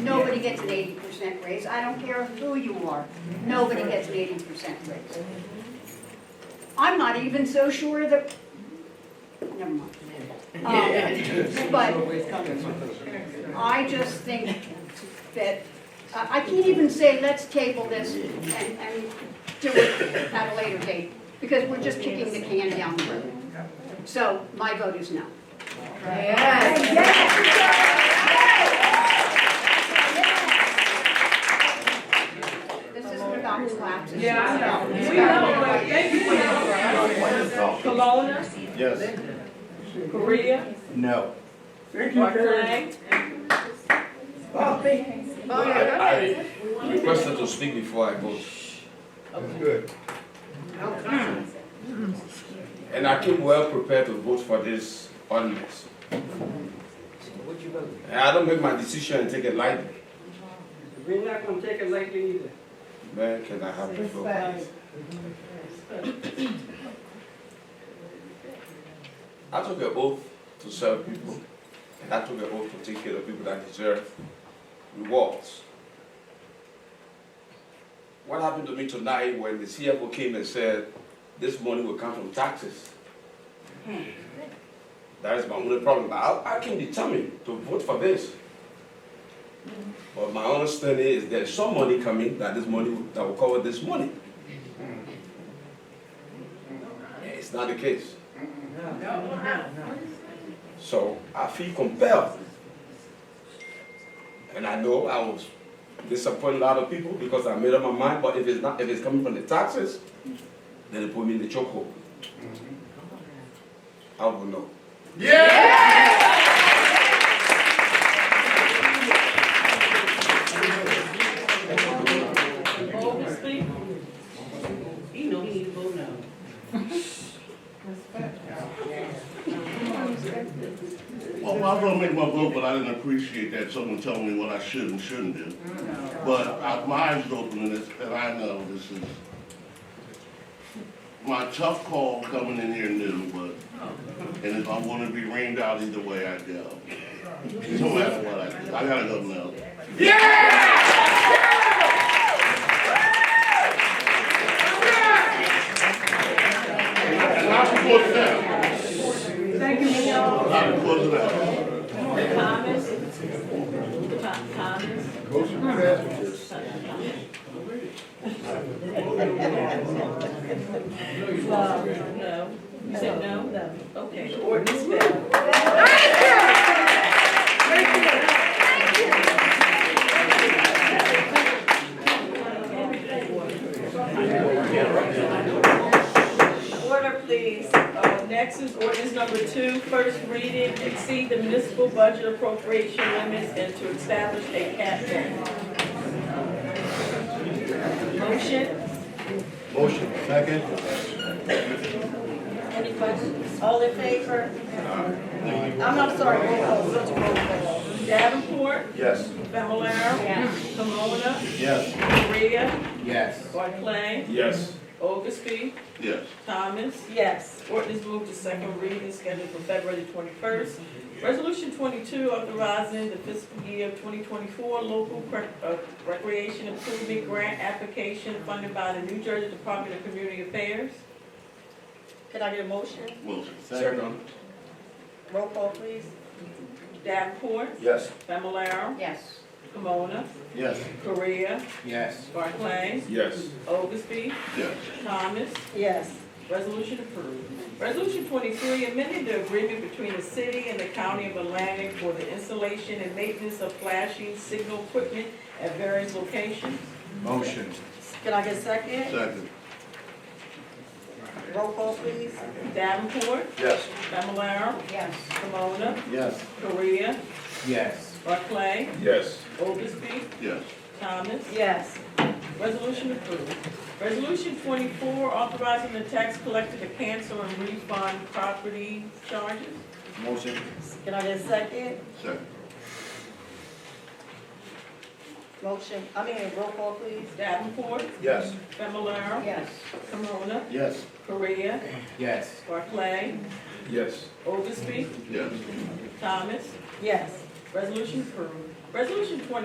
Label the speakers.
Speaker 1: Nobody gets an eighty percent raise, I don't care who you are, nobody gets an eighty percent raise. I'm not even so sure that, never mind. Um, But I just think that, I I can't even say, let's table this and, and do it at a later date, because we're just kicking the can down the road. So my vote is no. This isn't about collapses.
Speaker 2: Yeah, I know.
Speaker 1: It's
Speaker 2: We
Speaker 1: about-
Speaker 2: know, but thank you for your- Kelowna,
Speaker 3: Yes.
Speaker 2: Korea,
Speaker 3: No.
Speaker 2: Barclay.
Speaker 3: I-
Speaker 4: I requested to speak before I vote,
Speaker 3: Good.
Speaker 4: and I came well prepared to vote for this ordinance. And I don't make my decision and take it lightly.
Speaker 5: We're not gonna take it lightly either.
Speaker 4: Man, can I have the floor, please? I took an oath to serve people, and I took an oath to take care of people that deserve rewards. What happened to me tonight when the CFO came and said, this money will come from taxes? That is my only problem, but I, I can determine to vote for this. But my understanding is there's some money coming, that this money, will- that will cover this money. Yeah, It's not the case. So I feel compelled. And I know I was disappointing a lot of people because I made up my mind, but if it's not, if it's coming from the taxes, then it put me in the chokehold. I will know.
Speaker 2: Bold to speak. You know we need to vote now.
Speaker 3: Well, I was gonna make my vote, but I didn't appreciate that someone telling me what I should and shouldn't do. But I- my eyes are open to this, and I know this is my tough call coming in here new, but, and if I wanna be rained out either way, I go. No matter what I do, I gotta go now. Yeah! And I support that.
Speaker 2: Thank you, Leon.
Speaker 3: I support that.
Speaker 2: Thomas. Thomas. No. You said no? No. Okay, the ordinance failed. Order, please. Uh, Next is ordinance number two, first reading, exceed the municipal budget appropriation limits and to establish a cap. Motion,
Speaker 3: Motion, second.
Speaker 2: any questions? All in favor? I'm not sorry, roll call, such a roll call. Davenport,
Speaker 3: Yes.
Speaker 2: Fablelaro. Camona,
Speaker 3: Yes.
Speaker 2: Korea,
Speaker 3: Yes.
Speaker 2: Barclay,
Speaker 4: Yes.
Speaker 2: Oglesby,
Speaker 3: Yes.
Speaker 2: Thomas? Yes. Ordinance moved to second reading scheduled for February twenty-first. Resolution twenty-two authorizing the fiscal year twenty twenty-four local Cre- uh, recreation improvement grant application funded by the New Jersey Department of Community Affairs. Can I get a motion?
Speaker 3: Motion.
Speaker 4: Second.
Speaker 2: Roll call, please. Davenport,
Speaker 3: Yes.
Speaker 2: Fablelaro,
Speaker 1: Yes.
Speaker 2: Camona,
Speaker 3: Yes.
Speaker 2: Korea,
Speaker 3: Yes.
Speaker 2: Barclay,
Speaker 4: Yes.
Speaker 2: Oglesby,
Speaker 3: Yes.
Speaker 2: Thomas? Yes. Resolution approved. Resolution twenty-three, amending the agreement between the city and the county of Atlantic for the installation and maintenance of flashing signal equipment at various locations.
Speaker 4: Motion.
Speaker 2: Can I get a second?
Speaker 3: Second.
Speaker 2: Roll call, please. Davenport,
Speaker 3: Yes.
Speaker 2: Fablelaro,
Speaker 1: Yes.
Speaker 2: Pomona,
Speaker 3: Yes.
Speaker 2: Korea,
Speaker 3: Yes.
Speaker 2: Barclay,
Speaker 4: Yes.
Speaker 2: Oglesby,
Speaker 3: Yes.
Speaker 2: Thomas? Yes. Resolution approved. Resolution twenty-four, authorizing the tax collector to cancel and refund property charges.
Speaker 3: Motion.
Speaker 2: Can I get a second?
Speaker 3: Second.
Speaker 2: Motion, I mean, roll call, please. Davenport,
Speaker 3: Yes.
Speaker 2: Fablelaro,
Speaker 1: Yes.
Speaker 2: Camona,
Speaker 3: Yes.
Speaker 2: Korea,
Speaker 6: Yes.
Speaker 2: Barclay,
Speaker 4: Yes.
Speaker 2: Oglesby,
Speaker 3: Yes.
Speaker 2: Thomas. Yes. Resolution approved. Resolution twenty